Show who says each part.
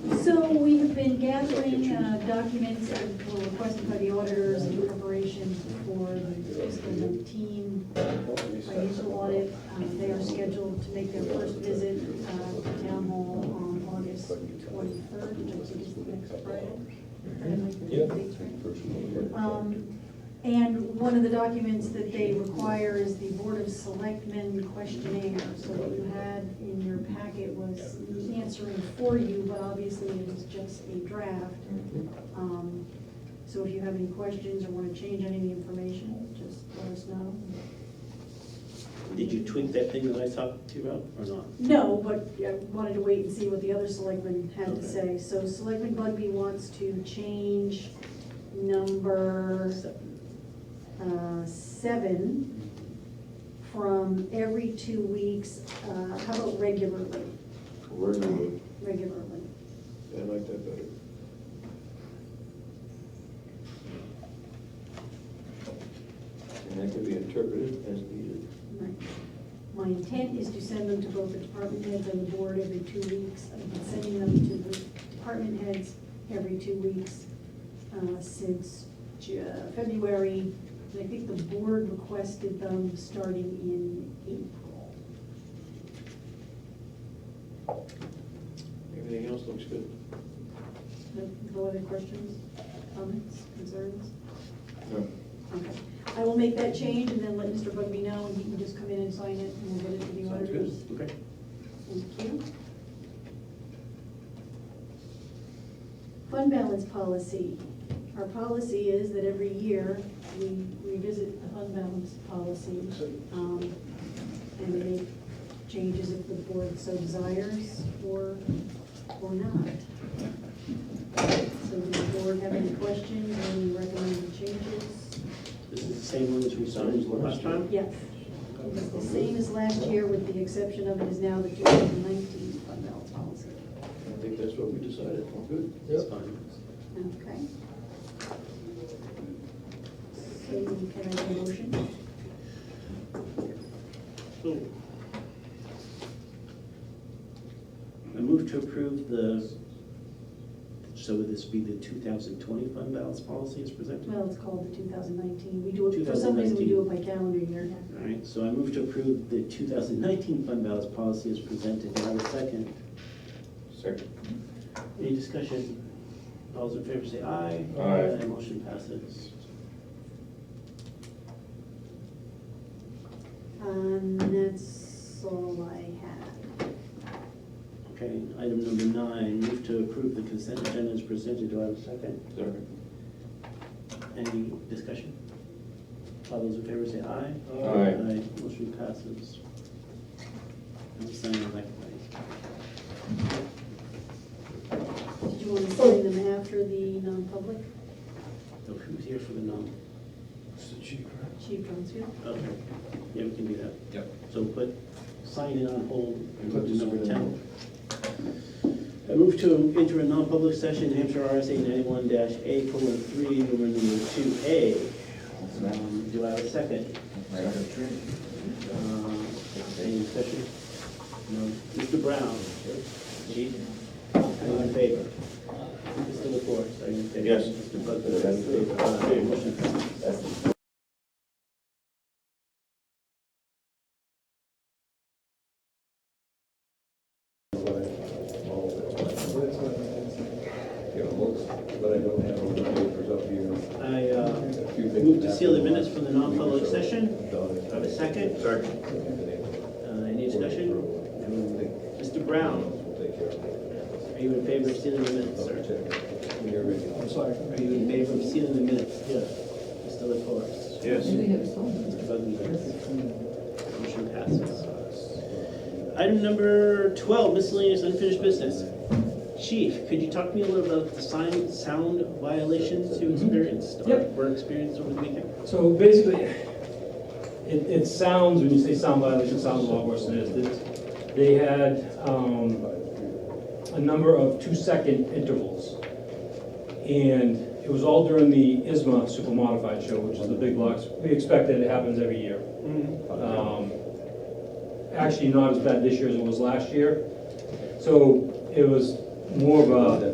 Speaker 1: uh, documents that were requested by the auditors in preparation for the fiscal 19 financial audit. Um, They are scheduled to make their first visit uh, to town hall on August 23rd, which I think is the next Friday. Did I make the
Speaker 2: Yeah.
Speaker 1: dates right? Um, And one of the documents that they require is the Board of Selectmen questionnaire. So what you had in your packet was the answering for you, but obviously it is just a draft. Um, So if you have any questions or want to change any of the information, just let us know.
Speaker 3: Did you tweak that thing that I talked to you about, or not?
Speaker 1: No, but I wanted to wait and see what the other selectmen had to say.
Speaker 3: Okay.
Speaker 1: So Selectman Bugby wants to change number uh, seven from every two weeks, uh, how about regularly,
Speaker 4: Regularly,
Speaker 1: regularly?
Speaker 4: I like that better. And that can be interpreted as needed.
Speaker 1: Right. My intent is to send them to both the department heads and the board every two weeks. I've been sending them to the department heads every two weeks uh, since Ju- February. And I think the board requested them starting in April.
Speaker 4: Everything else looks good.
Speaker 1: No Uh, no other questions, comments, concerns?
Speaker 4: No.
Speaker 1: Okay. I will make that change and then let Mr. Bugby know, and he can just come in and sign it, and we'll get it to the
Speaker 4: Sounds good.
Speaker 1: auditors.
Speaker 3: Okay.
Speaker 1: Thank you. Fund balance policy. Our policy is that every year we revisit the fund balance policy. um, And we make changes if the board so desires or, or not. So does the board have any questions or any recommended changes?
Speaker 3: This is the same one as we signed last time?
Speaker 1: Yes. It's the same as last year with the exception of it is now the 2019 fund balance policy.
Speaker 4: I think that's what we decided, all good.
Speaker 3: It's fine.
Speaker 1: Okay. So can I have a motion?
Speaker 3: I move to approve the, so would this be the 2020 fund balance policy as presented?
Speaker 1: Well, it's called the 2019. We do it, for some reason, we do it by calendar year.
Speaker 3: All right, so I move to approve the 2019 fund balance policy as presented. Do I have a second?
Speaker 4: Second.
Speaker 3: Any discussion? All those in favor say aye.
Speaker 4: Aye.
Speaker 3: Motion passes.
Speaker 1: Um, that's all I had.
Speaker 3: Okay, item number nine, move to approve the consent agenda as presented. Do I have a second?
Speaker 4: Second.
Speaker 3: Any discussion? All those in favor say aye.
Speaker 4: Aye.
Speaker 3: Motion passes. I'm signing that way.
Speaker 1: Did you want to sign them after the non-public?
Speaker 3: So who's here for the non?
Speaker 1: Chief Brunsfield?
Speaker 3: Okay, yeah, we can do that.
Speaker 5: Yep.
Speaker 3: So put, sign in on hold and go
Speaker 4: Put
Speaker 3: to
Speaker 4: this
Speaker 3: number
Speaker 4: one in
Speaker 3: ten. I move to enter a non-public session, Hampshire RSA ninety-one dash A, colon, three, number two A. Um, Do I have a second? Um, Any discussion? No. Mr. Brown? Chief? Are you in favor? Mr. LaFors, are you in favor?
Speaker 4: Yes.
Speaker 3: Mr. Butler? are you in favor? Uh, Motion passes.
Speaker 4: Yeah, looks, but I don't have all the papers up here.
Speaker 3: I uh,
Speaker 4: A few things
Speaker 3: move to seal the
Speaker 4: happened
Speaker 3: minutes from the non-public
Speaker 4: last week or so.
Speaker 3: session.
Speaker 4: Done.
Speaker 3: Do I have a second? Second. uh, Any discussion?
Speaker 4: Everything
Speaker 3: Mr. Brown,
Speaker 4: will take care of it.
Speaker 3: are you in favor of sealing the minutes, sir?
Speaker 4: Check. You're ready.
Speaker 3: I'm sorry. Are you in favor of sealing the minutes? Yes. Mr. LaFors?
Speaker 4: Yes.
Speaker 3: Mr. Buckingham? Motion passes. Item number 12, miscellaneous unfinished business. Chief, could you talk to me a little about the sign, sound violations you experienced? or
Speaker 6: Yep.
Speaker 3: Were experienced over the weekend?
Speaker 6: So basically, it, it sounds, when you say sound violation, it sounds a lot worse than it is. They- They had, um, a number of two-second intervals. And it was all during the ISMA Super Modified Show, which is the big box. We expect that it happens every year. Um, Actually, not as bad this year as it was last year. So it was more of a